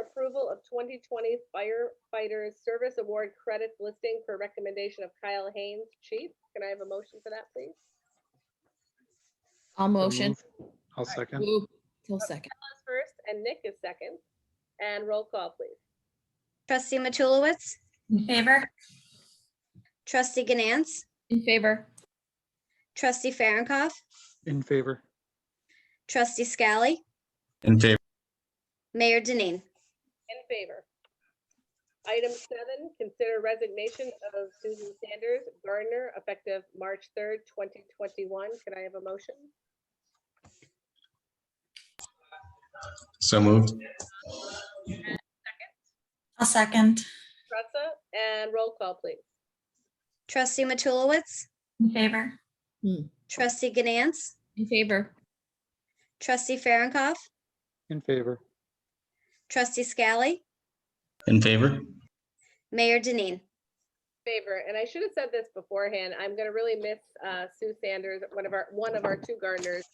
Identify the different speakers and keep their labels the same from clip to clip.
Speaker 1: approval of 2020 firefighter service award credits listing per recommendation of Kyle Haynes, chief. Can I have a motion for that, please?
Speaker 2: I'll motion.
Speaker 3: move. I'll second.
Speaker 2: Move till second.
Speaker 1: Liz First, and Nick is second. And roll call, please.
Speaker 4: Trustee Matulowicz,
Speaker 5: In favor?
Speaker 4: trustee Ganance,
Speaker 2: In favor.
Speaker 4: trustee Farronkov,
Speaker 3: In favor.
Speaker 4: trustee Scally,
Speaker 6: In favor.
Speaker 4: Mayor Denine.
Speaker 1: In favor. Item seven, consider resignation of Susan Sanders Gardner effective March 3rd, 2021. Can I have a motion?
Speaker 6: So moved.
Speaker 5: I'll second.
Speaker 1: Tressa, and roll call, please.
Speaker 4: Trustee Matulowicz,
Speaker 5: In favor?
Speaker 4: trustee Ganance,
Speaker 2: In favor.
Speaker 4: trustee Farronkov,
Speaker 3: In favor.
Speaker 4: trustee Scally,
Speaker 6: In favor.
Speaker 4: Mayor Denine.
Speaker 1: Favor, and I should have said this beforehand, I'm gonna really miss uh, Sue Sanders, one of our, one of our two gardeners.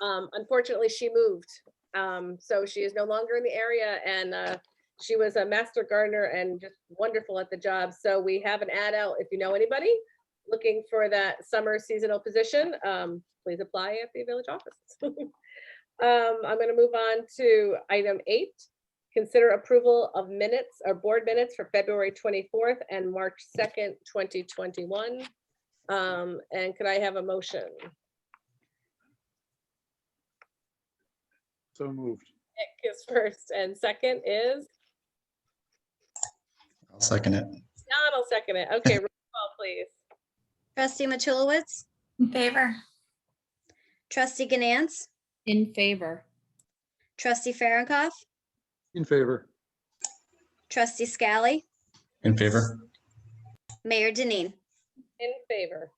Speaker 1: Um, Unfortunately, she moved, um, so she is no longer in the area and uh, she was a master gardener and just wonderful at the job. So we have an ad out, if you know anybody looking for that summer seasonal position, um, please apply at the village office. Um, I'm gonna move on to item eight, Consider approval of minutes or board minutes for February 24th and March 2nd, 2021. Um, And could I have a motion?
Speaker 3: So moved.
Speaker 1: Nick is first and second is,
Speaker 6: I'll second it.
Speaker 1: Donald second it. Okay, roll call please.
Speaker 4: Trustee Matulowicz,
Speaker 5: In favor?
Speaker 4: trustee Ganance,
Speaker 2: In favor.
Speaker 4: trustee Farronkov,
Speaker 3: In favor.
Speaker 4: trustee Scally,
Speaker 6: In favor.
Speaker 4: Mayor Denine.
Speaker 1: In favor.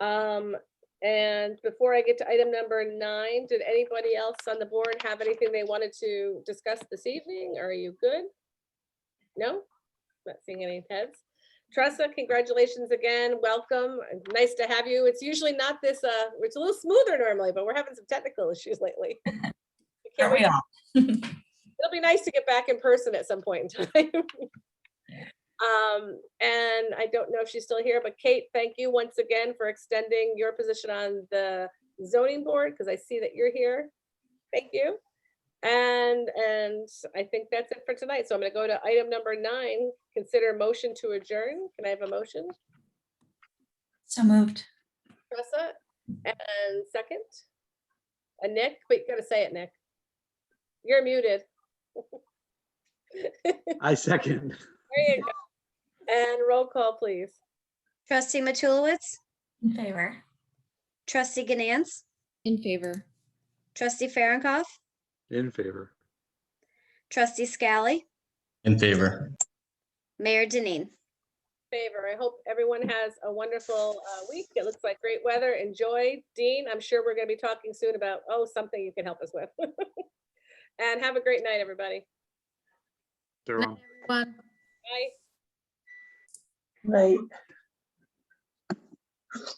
Speaker 1: Um, And before I get to item number nine, did anybody else on the board have anything they wanted to discuss this evening? Are you good? No? Not seeing any heads. Tressa, congratulations again. Welcome. Nice to have you. It's usually not this, uh, it's a little smoother normally, but we're having some technical issues lately. We can't
Speaker 5: Aren't
Speaker 1: wait.
Speaker 5: we all?
Speaker 1: It'll be nice to get back in person at some point in time. Um, and I don't know if she's still here, but Kate, thank you once again for extending your position on the zoning board, because I see that you're here. Thank you. And, and I think that's it for tonight. So I'm gonna go to item number nine, consider motion to adjourn. Can I have a motion,
Speaker 5: So moved.
Speaker 1: Tressa? And second? And Nick, but you gotta say it, Nick. You're muted. There
Speaker 3: I second.
Speaker 1: you go. And roll call, please.
Speaker 4: Trustee Matulowicz,
Speaker 5: In favor?
Speaker 4: trustee Ganance,
Speaker 2: In favor.
Speaker 4: trustee Farronkov,
Speaker 3: In favor.
Speaker 4: trustee Scally,
Speaker 6: In favor.
Speaker 4: Mayor Denine.
Speaker 1: favor. I hope everyone has a wonderful uh, week. It looks like great weather. Enjoy. Dean, I'm sure we're going to be talking soon about, oh, something you can help us with. And have a great night, everybody.
Speaker 3: Jerome.
Speaker 2: One.
Speaker 1: Bye.
Speaker 7: Right.